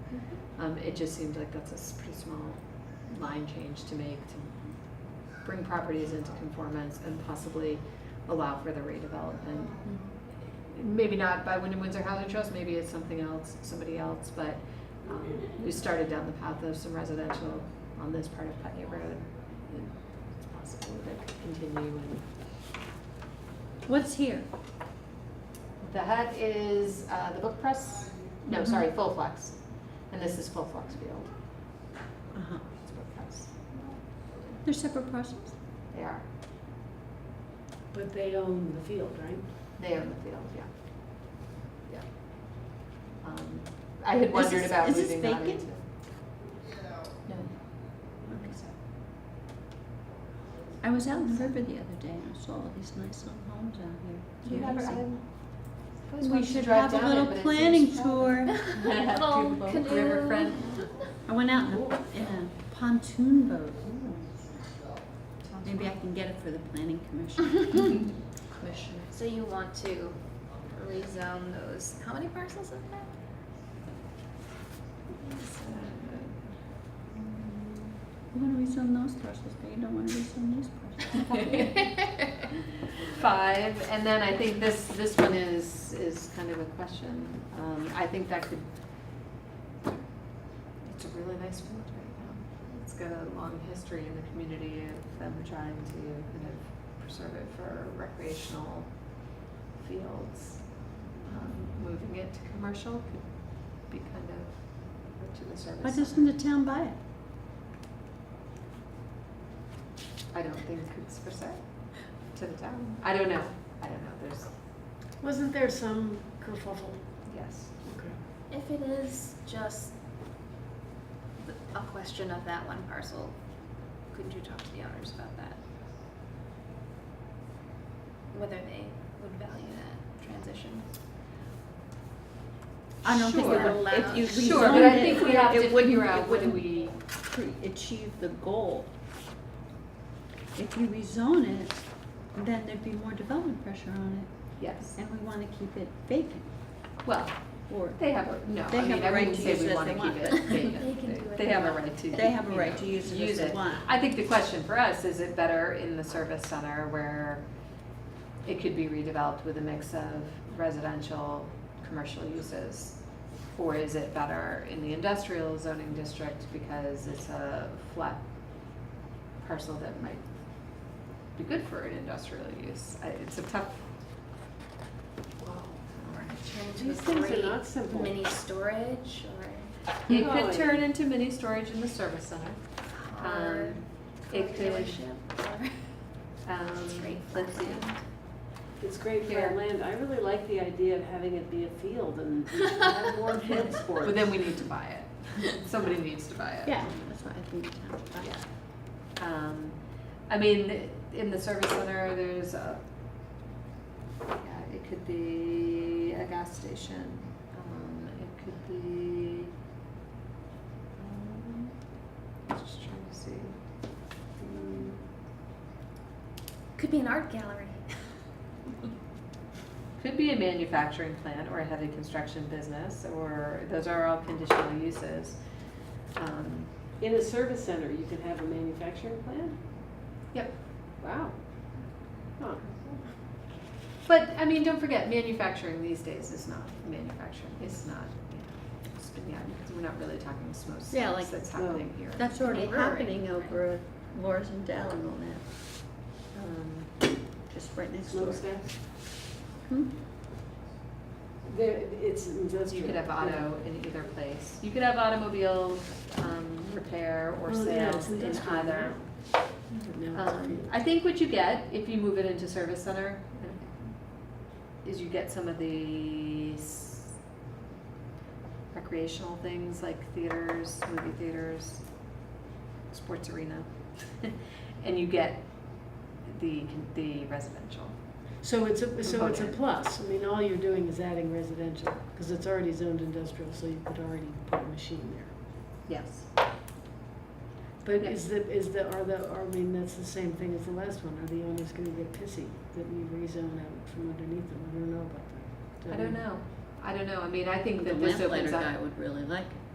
Um, it just seemed like that's a s- pretty small line change to make to bring properties into conformance and possibly allow for the redevelopment. Maybe not by Wyndham Windsor Housing Trust, maybe it's something else, somebody else, but, um, we started down the path of some residential on this part of Putney Road. and It's possible that it could continue and What's here? The hut is uh, the book press. No, Mhm. sorry, Full Flex, and this is Full Flex Field. Uh-huh. It's book press. They're separate parcels? They are. But they own the field, right? They own the field. Yeah. Yeah. Um, I had wondered this- about is this moving that vacant? into. No. Okay. I was out in the river the other day and I saw all these nice little homes out here. It's Do you have amazing. we We should have a little planning tour. Little River canoe. friend. I went out in a, in a pontoon boat. Maybe I can get it for the planning commission. Commissioner. So you want to rezone those, how many parcels is that? You wanna rezone those parcels, but you don't wanna rezone these parcels. Five, and then I think this, this one is, is kind of a question. Um, I think that could, it's a really nice field right now. It's got a long history in the community of them trying to kind of preserve it for recreational fields. Um, Moving it to commercial could be kind of to the service. Why center. doesn't the town buy it? I don't think it's for sale to the town. I don't know. I don't know. There's, Wasn't there some kerfuffle? yes. Okay. If it is just th- a question of that one parcel, couldn't you talk to the owners about that? Whether they would value that transition? I don't think Sure. it would, if you rezoned it. Sure, but I think we have it to wouldn't- figure out it what do wouldn't we, pre- achieve the goal. If you rezone it, then there'd be more development pressure on yes. it, and we wanna keep it vacant, Well, or they have a, no, They I have mean, a I right wouldn't to say use it we as want to they keep want, it but they can do vacant. what They they have a want. right to. they have a you right know, to use it as they it. want. I think the question for us, is it better in the service center where it could be redeveloped with a mix of residential, commercial uses? Or is it better in the industrial zoning district because it's a flat parcel that might be good for an industrial use? I- It's a tough. Or turn into These a things great are not simple. Mini storage or? It could Really? turn into mini storage in the service center. or Um, it could- dealership or- Um, It's great let's see. flat. It's great for Here. our land. I really like the idea of having it be a field and have more field sports. But then we need to buy it. Somebody needs to buy it. Yeah, that's what I think the town would buy. Yeah. Um, I mean, in the service center, there's a, yeah, it could be a gas station. Um, it could be, um, just trying to see. Um, Could be an art gallery. Could be a manufacturing plant or a heavy construction business, or those are all conditional uses. Um, In a service center, you can have a manufacturing plant? Yep. Wow. Huh. But I mean, don't forget, manufacturing these days is not manufacturing. It's not. You know, it's been, yeah, because we're not really talking smoke Yeah, signals like- that's happening here. That's already Brewery, happening right. over Laura's and Dell and all that, um, just right next door. Smokestacks? Hmm? There, it's industrial. you could have auto in either place. You could have automobile um, repair or Oh, yeah, sales it's in industrial either. now. Now it's Um, I think what you get if you move it into service center is you get some of the s- recreational things like theaters, movie theaters, sports arena, and you get the the residential. So it's a, so it's a Component. plus, I mean, all you're doing is adding residential, because it's already zoned industrial, so you could already put a machine there. Yes. But Yeah. is the, is the, are the, are- I mean, that's the same thing as the last one, are the owners gonna get pissy that we rezone out from underneath them, I don't know about that. I don't know. I don't know. I mean, I think The that this opens lamplighter up. guy would really like it.